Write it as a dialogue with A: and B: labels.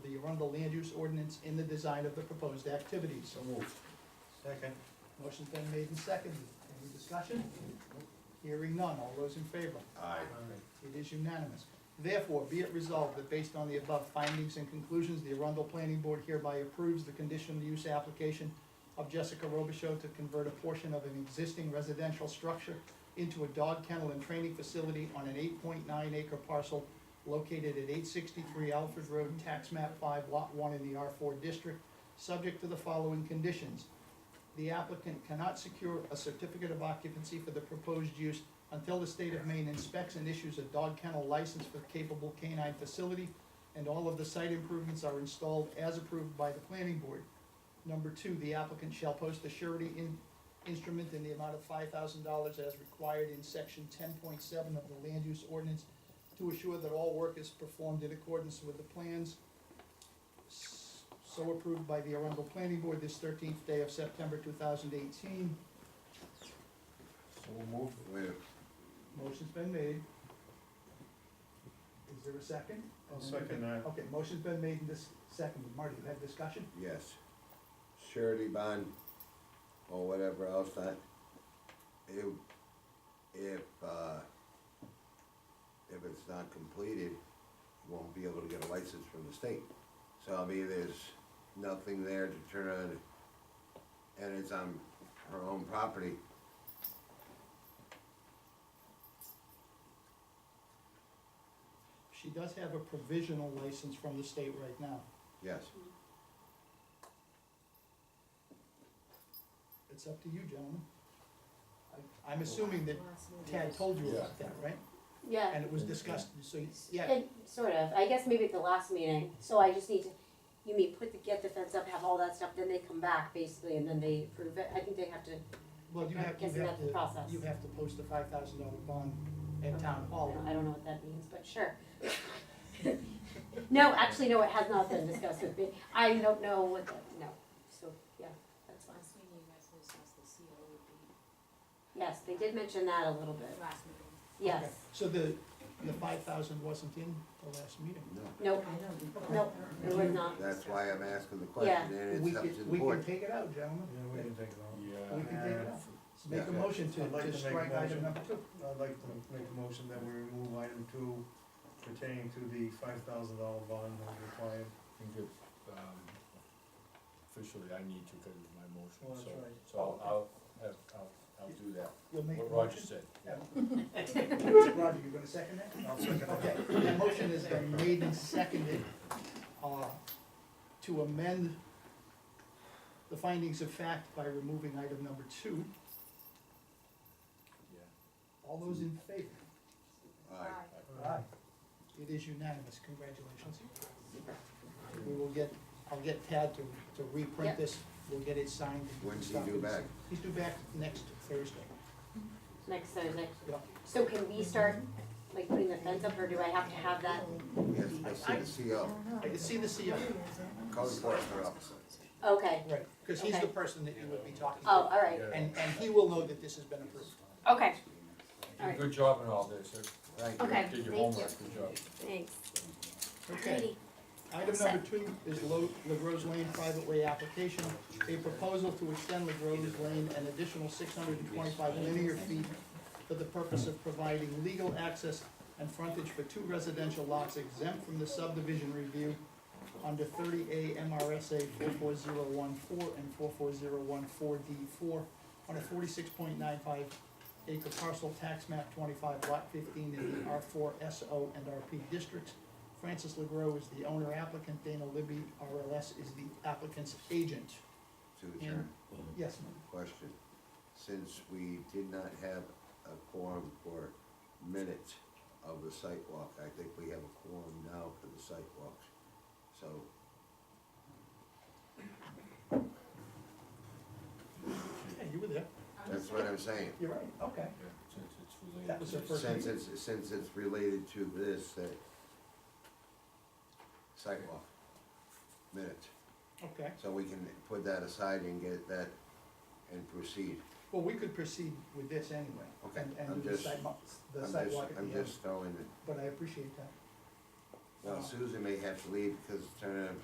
A: from the land use ordinance in the design of the proposed activities.
B: So moved. Second.
A: Motion's been made and seconded. Any discussion? Hearing none. All those in favor?
C: Aye.
A: It is unanimous. Therefore, be it resolved that based on the above findings and conclusions, the Arundel Planning Board hereby approves the conditional use application of Jessica Robichaux to convert a portion of an existing residential structure into a dog kennel and training facility on an eight point nine acre parcel located at eight sixty-three Alfred Road, tax map five, lot one in the R four district, subject to the following conditions. The applicant cannot secure a certificate of occupancy for the proposed use until the state of Maine inspects and issues a dog kennel license for capable canine facility, and all of the site improvements are installed as approved by the planning board. Number two, the applicant shall post a surety in, instrument in the amount of five thousand dollars as required in section ten point seven of the land use ordinance to assure that all work is performed in accordance with the plans s- so approved by the Arundel Planning Board this thirteenth day of September two thousand eighteen.
B: So moved.
C: Wait,
A: Motion's been made. Is there a second?
B: I'll second that.
A: Okay, motion's been made and this, seconded. Marty, you have discussion?
C: yes. Surety bond or whatever else that, if, if, uh, if it's not completed, you won't be able to get a license from the state. So I mean, there's nothing there to turn on, and it's on her own property.
A: She does have a provisional license from the state right now.
C: Yes,
A: It's up to you, gentlemen. I- I'm assuming that Tad told you about that, right?
D: Yeah,
A: And it was discussed, so, yeah,
D: and sort of, I guess maybe at the last meeting, so I just need to, you mean, put the, get the fence up, have all that stuff, then they come back basically, and then they approve it, I think they have to,
A: well, you have, you
D: Guess
A: have
D: that's the
A: to,
D: process.
A: you have to post a five thousand dollar bond at town hall.
D: I don't know what that means, but sure. No, actually, no, it has not been discussed with me, I don't know what, that- no, so, yeah, that's fine.
E: Last meeting you guys discussed the CO would be
D: Yes, they did mention that a little bit,
E: last meeting.
D: yes,
A: Okay, So the, the five thousand wasn't in the last meeting?
C: no,
D: nope, nope, it was not,
C: that's why I'm asking the question, and
A: We
C: it's up to
A: can,
C: the
A: we can
C: board.
A: take it out, gentlemen.
B: Yeah, we can take that.
A: We can take it out. Make a
C: Yeah.
A: motion to,
B: I'd like
A: to
B: to make a
A: strike item
B: motion.
A: number two.
B: I'd like to make a motion that we remove item two pertaining to the five thousand dollar bond that was required.
F: I think if, um, officially I need to because of my
A: Oh,
F: motion,
B: Well, that's
F: so,
B: right.
F: so I'll, I'll have, I'll, I'll do that,
A: You'll make a
F: what Roger
A: motion?
F: said.
A: Yeah.
F: yeah.
A: Roger, you're gonna second that?
B: I'll second
A: Okay, that motion has been made and seconded, uh, to amend the findings of fact by removing item number two.
F: Yeah.
A: All those in favor?
C: Aye.
A: Aye. It is unanimous, congratulations. We will get, I'll get Tad to, to reprint
D: Yep.
A: this, we'll get it signed. and
C: When's he
A: stuff.
C: due back?
A: He's due back next Thursday.
D: next Thursday.
A: Yeah.
D: So can we start, like, putting the fence up, or do I have to have that,
C: Yes, I see the CO,
D: Oh,
A: I can see the CO,
C: E code enforcement officer.
D: okay,
A: right, because he's the
D: Okay.
A: person that you would be talking to.
D: oh, all right,
A: And, and he will know that this has been approved.
D: okay,
F: You did a Good job in all this, you
C: Thank you.
D: okay,
F: did
D: thank
F: your
D: you,
F: homework, good job.
D: thanks.
A: Okay. Item number two is Lo- LaGrove Lane private way application, a proposal to extend LaGrove Lane an additional six hundred and twenty-five linear feet for the purpose of providing legal access and frontage for two residential lots exempt from the subdivision review under thirty A MRSA four four zero one four and four four zero one four D four on a forty-six point nine five acre parcel tax map twenty-five lot fifteen in the R four SO and RP districts. Francis LeGros is the owner applicant, Dana Libby, RLS, is the applicant's agent.
C: To adjourn.
A: Yes, ma'am.
C: question, since we did not have a quorum for minutes of the site walk, I think we have a quorum now for the site walks. So,
A: Yeah, you were there.
C: that's what I'm saying.
A: You're right, okay.
F: Yeah, Since it's related.
A: That was
F: to
A: the first
C: Since
A: meeting.
C: it's, since it's related to this, that site walk minutes,
A: Okay.
C: so we can put that aside and get that and proceed.
A: Well, we could proceed with this anyway.
C: Okay,
A: and-
C: I'm
A: And do the
C: just-
A: sidewalk, the
C: I'm just,
A: sidewalk at
C: I'm
A: the end, Oh.
C: just throwing it,
A: but I appreciate that.
C: now Susan may have to leave because it's turning